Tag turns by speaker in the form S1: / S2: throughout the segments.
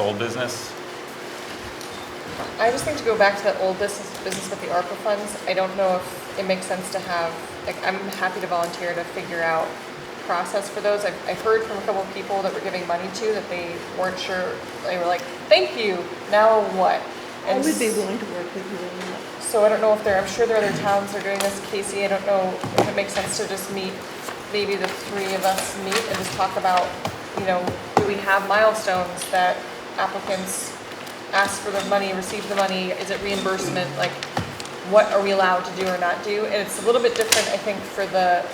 S1: Old business?
S2: I just think to go back to that old business, business with the ARPA funds, I don't know if it makes sense to have, like, I'm happy to volunteer to figure out process for those. I've, I've heard from a couple of people that we're giving money to that they weren't sure, they were like, thank you, now what?
S3: I
S2: And
S3: would be
S2: s-
S3: willing to work with you on that.
S2: So I don't know if there, I'm sure there are other towns that are doing this, Casey, I don't know if it makes sense to just meet, maybe the three of us meet and just talk about, you know, do we have milestones that applicants ask for the money, receive the money, is it reimbursement, like, what are we allowed to do or not do? And it's a little bit different, I think, for the,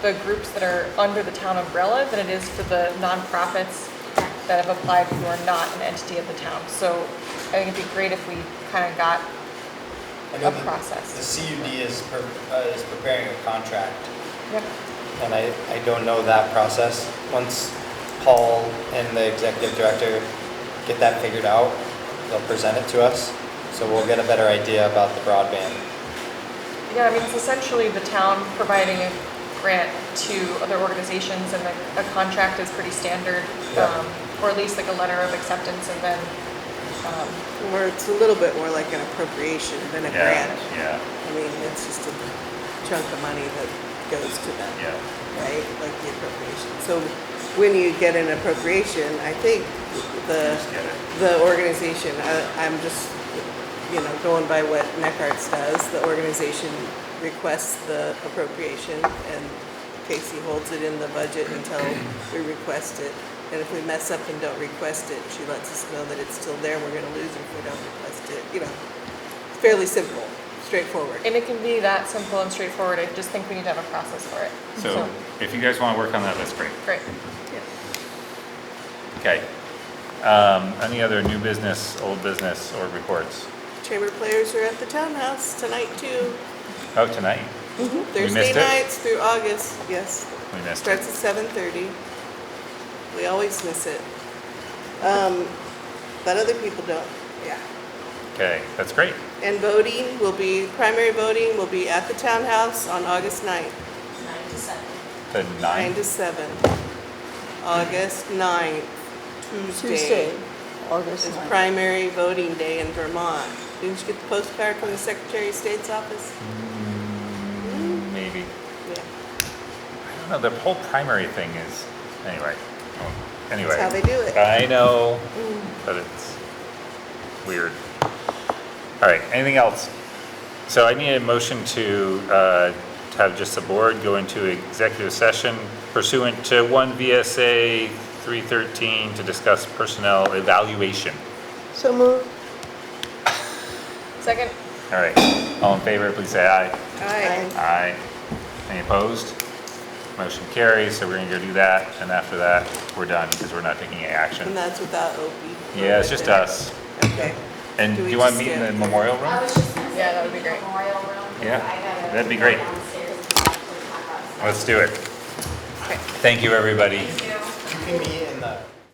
S2: the groups that are under the town umbrella than it is for the nonprofits that have applied who are not an entity of the town. So I think it'd be great if we kind of got
S4: I know
S2: a
S4: the-
S2: process.
S4: The CUD is, pre- uh, is preparing a contract,
S2: Yep.
S4: and I, I don't know that process. Once Paul and the executive director get that figured out, they'll present it to us, so we'll get a better idea about the broadband.
S2: Yeah, I mean, it's essentially the town providing a grant to other organizations and a, a contract is pretty standard.
S4: Yeah.
S2: um, Or at least like a letter of acceptance and then, um,
S3: Or it's a little bit more like an appropriation than a
S1: Yeah,
S3: grant.
S1: yeah,
S3: I mean, it's just a chunk of money that goes to them.
S1: yeah.
S3: right, like the appropriation. So when you get an appropriation, I think the,
S1: Just get it.
S3: the organization, I- I'm just, you know, going by what NECARTS does, the organization requests the appropriation and Casey holds it in the budget until we request it. And if we mess up and don't request it, she lets us know that it's still there, we're gonna lose it if we don't request it, you know. Fairly simple, straightforward.
S2: and it can be that simple and straightforward. I just think we need to have a process for it.
S1: So if you guys want to work on that, that's great.
S2: Great.
S3: Yeah.
S1: Okay. Um, Any other new business, old business, or reports?
S3: Chamber players are at the townhouse tonight too.
S1: Oh, tonight?
S3: Thursday
S1: missed it.
S3: nights through August, yes.
S1: We missed it.
S3: Starts at seven thirty. We always miss it. Um, but other people don't, yeah.
S1: Okay, that's great.
S3: And voting will be, primary voting will be at the townhouse on August ninth,
S5: nine to seven.
S1: The
S3: nine
S1: nine,
S3: to seven. August ninth, Tuesday
S6: Tuesday, August
S3: is
S6: 9th.
S3: primary voting day in Vermont. Didn't you get the postcard from the Secretary of State's office?
S1: Mm. maybe.
S3: Yeah,
S1: I don't know, the whole primary thing is, anyway, well, anyway.
S3: that's how they do it.
S1: I know, but it's weird. All right, anything else? So I need a motion to, uh, to have just the board go into executive session pursuant to one VSA three thirteen to discuss personnel evaluation.
S6: So moved.
S2: Second?
S1: All right, all in favor, please say aye.
S3: Aye.
S1: Aye. Any opposed? Motion carries, so we're gonna go do that, and after that, we're done, because we're not taking any
S3: And
S1: action.
S3: that's without Opie.
S1: Yeah, it's just us.
S3: Okay.
S1: And
S3: Do
S1: do
S3: we
S1: you want to
S3: just
S1: meet in the
S3: skip?
S1: memorial room?
S5: I was just gonna say.
S2: Yeah, that would be great.
S5: Memorial room. 'cause
S1: Yeah,
S5: I gotta
S1: that'd be
S5: go
S1: great.
S5: downstairs and talk to my boss.
S1: Let's do it. Thank you, everybody.
S5: Thank you.
S4: You can meet in the